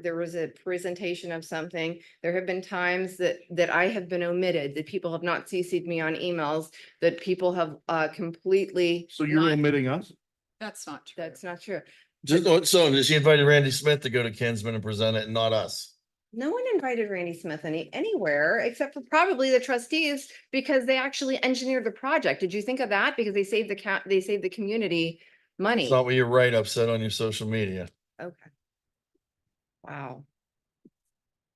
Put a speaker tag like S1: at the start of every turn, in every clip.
S1: there was a presentation of something. There have been times that, that I have been omitted, that people have not CC'd me on emails, that people have, uh, completely,
S2: So you're
S1: Not-
S2: omitting us?
S3: That's not true.
S1: that's not true.
S4: Just, oh, so she invited Randy Smith to go to Kinsman and present it and not us.
S1: No one invited Randy Smith any, anywhere except for probably the trustees because they actually engineered the project. Did you think of that? Because they saved the cat, they saved the community money.
S4: It's not what your write-up said on your social media.
S1: Okay. Wow.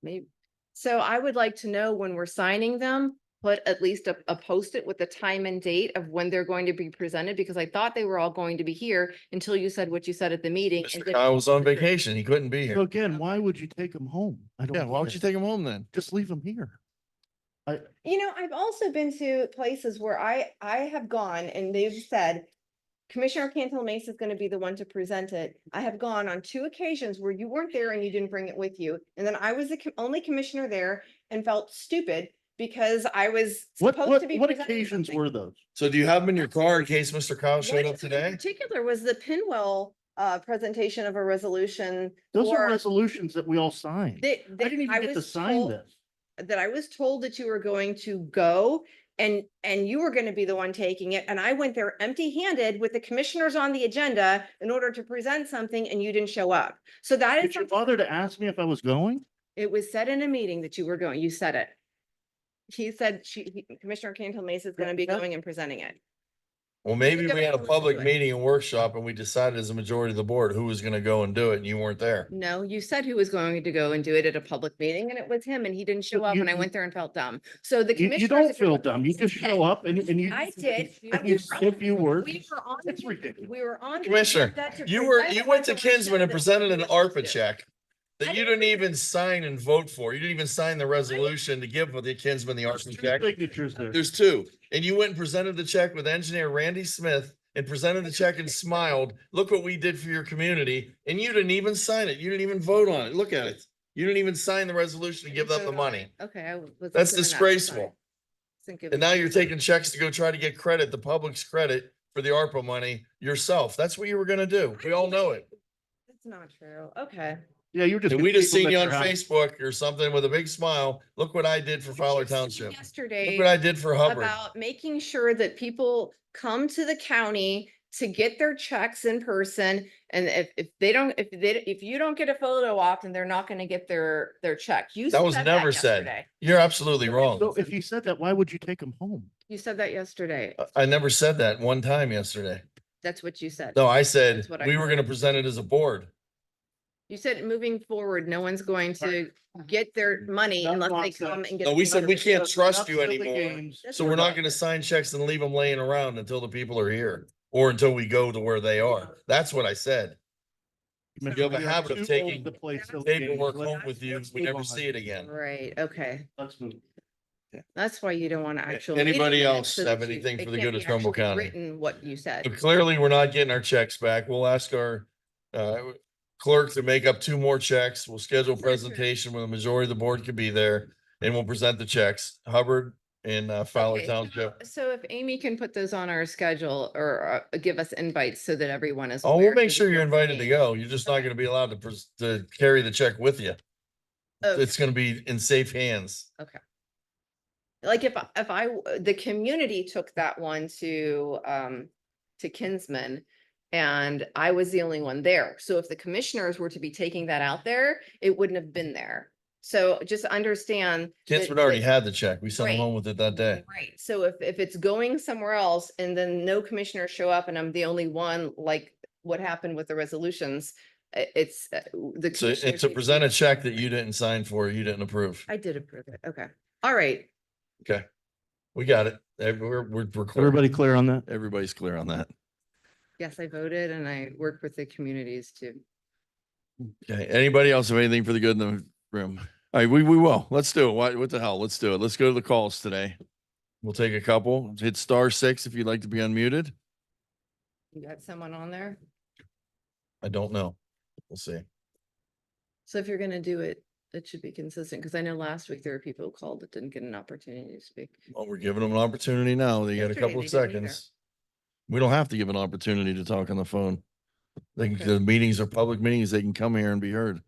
S1: Maybe, so I would like to know when we're signing them, put at least a, a post-it with the time and date of when they're going to be presented, because I thought they were all going to be here until you said what you said at the meeting. and
S4: Mr.
S1: didn't-
S4: Kyle was on vacation. He couldn't be
S2: So
S4: here.
S2: again, why would you take them home? I don't.
S4: Yeah, why would
S2: get
S4: you
S2: it.
S4: take him home then?
S2: Just leave them here.
S1: You know, I've also been to places where I, I have gone and they've said, Commissioner Cantal Mesa is going to be the one to present it. I have gone on two occasions where you weren't there and you didn't bring it with you. And then I was the co- only commissioner there and felt stupid because I was
S2: What,
S1: supposed
S2: what,
S1: to be.
S2: what
S1: presenting
S2: occasions
S1: something.
S2: were those?
S4: So do you have him in your car in case Mr. Kyle
S1: One
S4: showed up
S1: In
S4: today?
S1: particular was the Pinwell, uh, presentation of a resolution.
S2: Those are
S1: for-
S2: resolutions that we all signed. I
S1: that- that
S2: didn't
S1: I
S2: even get to
S1: was
S2: sign
S1: told-
S2: this.
S1: that I was told that you were going to go and, and you were going to be the one taking it. And I went there empty handed with the commissioners on the agenda in order to present something and you didn't show up. So that is,
S2: Did you
S1: something-
S2: bother to ask me if I was going?
S1: it was said in a meeting that you were going, you said it. He said, she, he- Commissioner Cantal Mesa is going to be
S2: Yeah.
S1: going and presenting it.
S4: Well, maybe we had a
S1: Don't
S4: public
S1: do it.
S4: meeting and workshop and we decided as a majority of the board who was gonna go and do it and you weren't there.
S1: No, you said who was going to go and do it at a public meeting and it was him and he didn't show up
S2: you-
S1: and I went there and felt dumb. So the
S2: You,
S1: commissioners.
S2: you don't
S1: if you're-
S2: feel dumb. You just
S1: Okay.
S2: show up and, and you.
S1: I did. I
S2: and You
S1: was-
S2: if you were.
S1: We were on.
S2: It's
S1: the-
S2: ridiculous.
S1: We were on. the
S4: Commissioner,
S1: agenda to
S4: You were,
S1: present
S4: you
S1: the
S4: went to
S1: resolution
S4: Kinsman and
S1: that
S4: presented an
S1: we
S4: ARPA
S1: do.
S4: check
S1: I
S4: that you
S1: didn't
S4: didn't even sign and vote for. You didn't even sign the resolution to give the Kinsman the
S2: There's
S4: ARPA
S2: two
S4: check.
S2: Signatures there.
S4: There's two. And you went and presented the check with engineer Randy Smith and presented the check and smiled. Look what we did for your community. And you didn't even sign it. You didn't even vote on it. Look at it. You didn't even sign the resolution to give them the
S1: vote on
S4: money.
S1: it. Okay. I w- wasn't given
S4: That's
S1: that, I'm sorry.
S4: disgraceful.
S1: Wasn't given
S4: And now
S1: that.
S4: you're taking checks to go try to get credit, the public's credit for the ARPA money yourself. That's what you were gonna do. We all know it.
S1: That's not true. Okay.
S2: Yeah, you're just.
S4: And
S2: gonna
S4: we just
S2: leave
S4: seen you on
S2: them at your house.
S4: Facebook or something with a big smile. Look what I did for Fowler Township. Look what
S1: Yesterday
S4: I did for Hubbard.
S1: about making sure that people come to the county to get their checks in person. And if, if they don't, if they, if you don't get a photo op, then they're not going to get their, their check. You.
S4: That was never said.
S1: yesterday.
S4: You're absolutely wrong.
S2: So if you said that, why would you take them home?
S1: You said that yesterday.
S4: I- I never said that one time yesterday.
S1: That's what you said.
S4: No, I said,
S1: That's what I
S4: we were gonna present it as a board.
S1: You said moving forward, no one's going to
S2: Right.
S1: get their money
S2: That's
S1: unless they
S2: nonsense.
S1: come and get.
S4: No,
S1: the
S4: we said
S1: money.
S4: we can't trust you
S2: Enough silly
S4: anymore.
S2: games.
S1: That's
S4: So we're not
S1: right.
S4: gonna sign checks and leave them laying around until the people are here or until we go to where they are. That's what I said.
S2: Commissioner,
S4: You have a
S2: are
S4: habit of
S2: too old
S4: taking
S2: to play silly games.
S4: Paperwork
S2: Let's-
S4: home with you.
S2: let's
S4: We
S2: move
S4: never
S2: on.
S4: see it again.
S1: Right, okay.
S2: Let's move.
S1: That's why you don't want to
S4: Okay,
S1: actually.
S4: anybody else have anything for the good of Trumbull County?
S1: Written what you
S4: But
S1: said.
S4: clearly, we're not getting our checks back. We'll ask our uh, clerk to make up two more checks. We'll schedule a
S1: Sure, sure.
S4: presentation where the majority of the board could be there and we'll present the checks. Hubbard and uh, Fowler
S1: Okay, so-
S4: Township.
S1: So if Amy can put those on our schedule or uh, give us invites so that everyone is.
S4: Oh,
S1: aware,
S4: we'll make
S1: 'cause
S4: sure
S1: it's
S4: you're
S1: not for
S4: invited to
S1: me.
S4: go. You're just not
S1: Okay.
S4: gonna be allowed to pres- to carry the check with you.
S1: Okay.
S4: It's gonna be in safe hands.
S1: Like if, I- if I, w- the community took that one to, um, to Kinsman. And I was the only one there. So if the commissioners were to be taking that out there, it wouldn't have been there. So just understand. that-
S4: Kids would already
S1: that-
S4: had the check. We sent them
S1: Right.
S4: home with it that day.
S1: Right, so if, if it's going somewhere else and then no commissioners show up and I'm the only one, like what happened with the resolutions, i- it's uh, w- the.
S4: So and
S1: commissioners
S4: to
S1: need
S4: present
S1: be-
S4: a check that you didn't sign for, you didn't approve.
S1: I did approve it, okay, all right,
S4: We got it. Eh, We're, we're, we're clear.
S2: Everybody clear on that?
S4: Everybody's clear on that.
S1: yes, I voted and I worked with the communities too.
S4: Okay, anybody else have anything for the good in the room? All right, we, we will. Let's do it. What, what the hell? Let's do it. Let's go to the calls today. We'll take a couple. Hit star six if you'd like to be unmuted.
S1: You got someone on there?
S4: I don't know. We'll see.
S1: So if you're gonna do it, it should be consistent, because I know last week there were people who called that didn't get an opportunity to speak.
S4: Well, we're giving them an opportunity now. They got a
S1: Yesterday
S4: couple of
S1: they didn't either.
S4: seconds. We don't have to give an opportunity to talk on the phone. They can,
S1: Okay.
S4: the meetings are public meetings. They can come here and be heard.